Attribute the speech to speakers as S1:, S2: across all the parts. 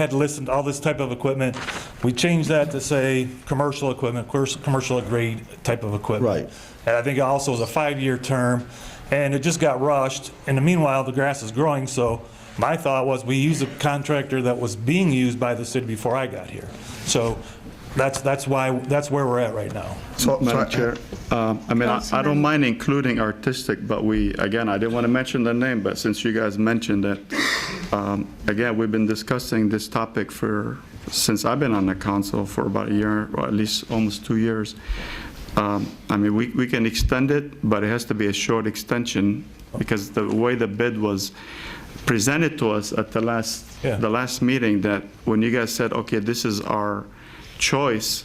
S1: had listened to all this type of equipment. We changed that to say, commercial equipment, of course, commercial grade type of equipment.
S2: Right.
S1: And I think it also was a five-year term, and it just got rushed. In the meanwhile, the grass is growing, so my thought was, we use a contractor that was being used by the city before I got here. So that's, that's why, that's where we're at right now.
S2: So-
S3: Madam
S2: so-
S3: Chair, um, I mean, I I don't mind including artistic, but we, again, I didn't want to mention the name, but since you guys mentioned it, um, again, we've been discussing this topic for, since I've been on the council for about a year, or at least almost two years. Um, I mean, we we can extend it, but it has to be a short extension, because the way the bid was presented to us at the last,
S1: Yeah.
S3: the last meeting, that when you guys said, okay, this is our choice,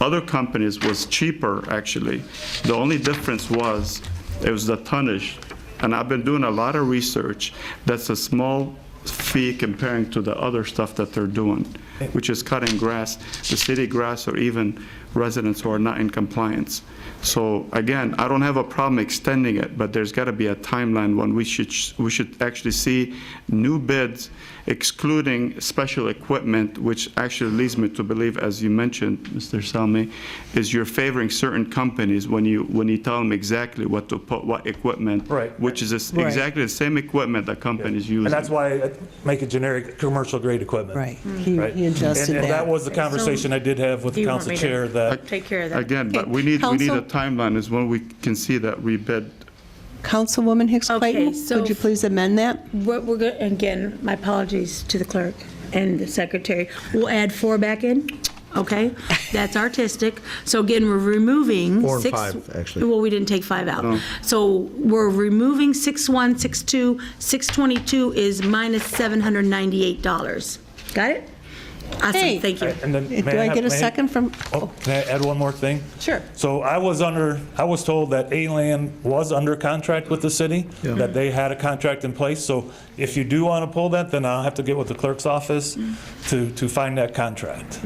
S3: other companies was cheaper, actually. The only difference was, it was the tonnage. And I've been doing a lot of research. That's a small fee comparing to the other stuff that they're doing, which is cutting grass, the city grass, or even residents who are not in compliance. So again, I don't have a problem extending it, but there's got to be a timeline when we should, we should actually see new bids excluding special equipment, which actually leads me to believe, as you mentioned, Mr. Salmi, is you're favoring certain companies when you, when you tell them exactly what to put, what equipment.
S1: Right.
S3: Which is this-
S4: Right.
S3: exactly the same equipment that companies use.
S1: And that's why I make it generic, commercial grade equipment.
S4: Right. He
S1: Right?
S4: he adjusted
S1: And-
S4: that.
S1: And that was the conversation I did have with the
S5: Hmm. You want
S1: council
S5: me to-
S1: chair that
S5: Take care of that.
S3: Uh, Again, but
S4: Okay,
S3: we need, we need a
S4: counsel?
S3: timeline is when we can see that rebid.
S4: Councilwoman Hicks
S5: Okay,
S4: Clayton,
S5: so-
S4: could you please amend that?
S5: What we're, go- again, my apologies to the clerk and the secretary. We'll add four back in, okay? That's artistic. So again, we're removing
S2: Four and
S5: six-
S2: five, actually.
S5: Well, we didn't take five out. So we're removing six one, six two, six twenty-two is minus seven hundred ninety-eight dollars. Got it?
S4: Hey.
S5: Awesome, thank you.
S1: And then,
S4: Do
S1: may
S4: I
S1: have-
S4: get a
S1: may-
S4: second from,
S1: Oh, Can I add one more thing?
S4: Sure.
S1: So I was under, I was told that A-Land was under contract with the city, that they had a contract in place. So if you do want to pull that, then I'll have to get with the clerk's office to, to find that contract.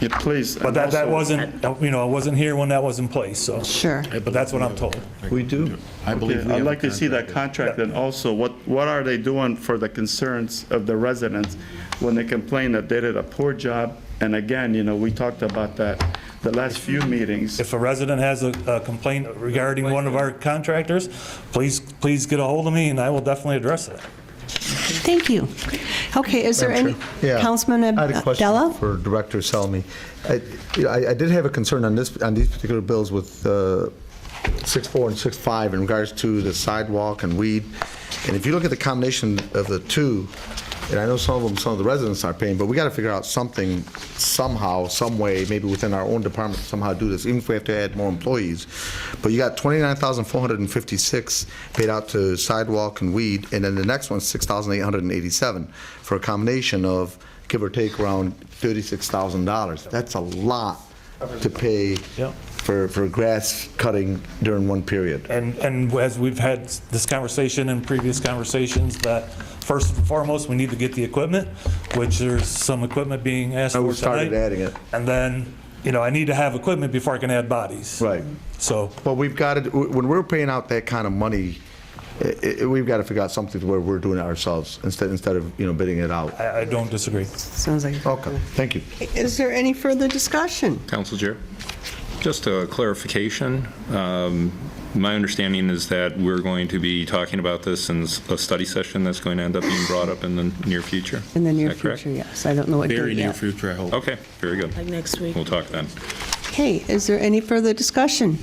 S3: Yeah, please.
S1: But that, that wasn't, you know, I wasn't here when that was in place, so.
S4: Sure.
S1: But that's what I'm told.
S2: We do.
S6: I believe we
S3: I'd
S6: have a
S3: like to see that
S6: contract.
S3: contract, and also, what, what are they doing for the concerns of the residents when they complain that they did a poor job? And again, you know, we talked about that the last few meetings.
S1: If a resident has a a complaint regarding one of our contractors, please, please get a hold of me and I will definitely address it.
S4: Thank you. Okay, is there any,
S2: Yeah.
S4: Councilman
S2: I had a question
S4: Abdullah?
S2: for Director Salmi. I- you know, I I did have a concern on this, on these particular bills with uh, 6.4 and 6.5 in regards to the sidewalk and weed. And if you look at the combination of the two, and I know some of them, some of the residents are paying, but we got to figure out something somehow, some way, maybe within our own department somehow do this, even if we have to add more employees. But you got 29,456 paid out to sidewalk and weed, and then the next one's 6,887 for a combination of, give or take, around $36,000. That's a lot to pay
S1: Yep.
S2: for, for grass cutting during one period.
S1: And, and as we've had this conversation and previous conversations, that first and foremost, we need to get the equipment, which there's some equipment being asked
S2: Oh,
S1: for
S2: we started
S1: tonight.
S2: adding it.
S1: And then, you know, I need to have equipment before I can add bodies.
S2: Right.
S1: So,
S2: Well, we've got to, when we're paying out that kind of money, i- i- we've got to figure out something where we're doing it ourselves instead, instead of, you know, bidding it out.
S1: I, I don't disagree.
S4: Sounds like.
S2: Okay, thank you.
S4: Is there any further discussion?
S6: Council Chair, just a clarification. Um, My understanding is that we're going to be talking about this in s- a study session that's going to end up being brought up in the near future.
S4: In the near
S6: Is that correct?
S4: future, yes. I don't know what date yet.
S7: Very near future, I hope.
S6: Okay, very good.
S5: Like next week.
S6: We'll talk then.
S4: Okay, is there any further discussion?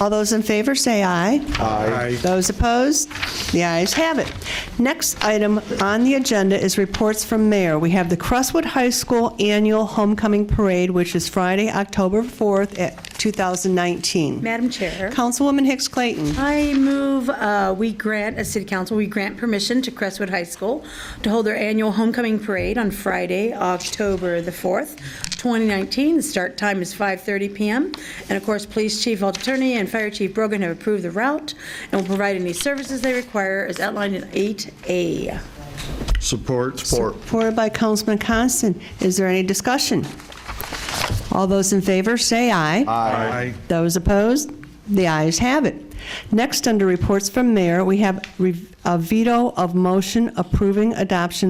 S4: All those in favor, say aye. Aye. Those opposed? The ayes have it. Next item on the agenda is reports from mayor. We have the Crestwood High School Annual Homecoming Parade, which is Friday, October 4th, at 2019.
S5: Madam Chair.
S4: Councilwoman Hicks Clayton.
S5: I move, uh, we grant, as city council, we grant permission to Crestwood High School to hold their annual homecoming parade on Friday, October the 4th, 2019. The start time is 5:30 PM. And of course, Police Chief Altoni and Fire Chief Brogan have approved the route and will provide any services they require as outlined in 8A.
S2: Support. Support.
S4: Supported by Councilman Constant. Is there any discussion? All those in favor, say aye.
S2: Aye.
S4: Those opposed? The ayes have it. uh, Next, under reports from mayor, we have re- a veto of motion approving adoption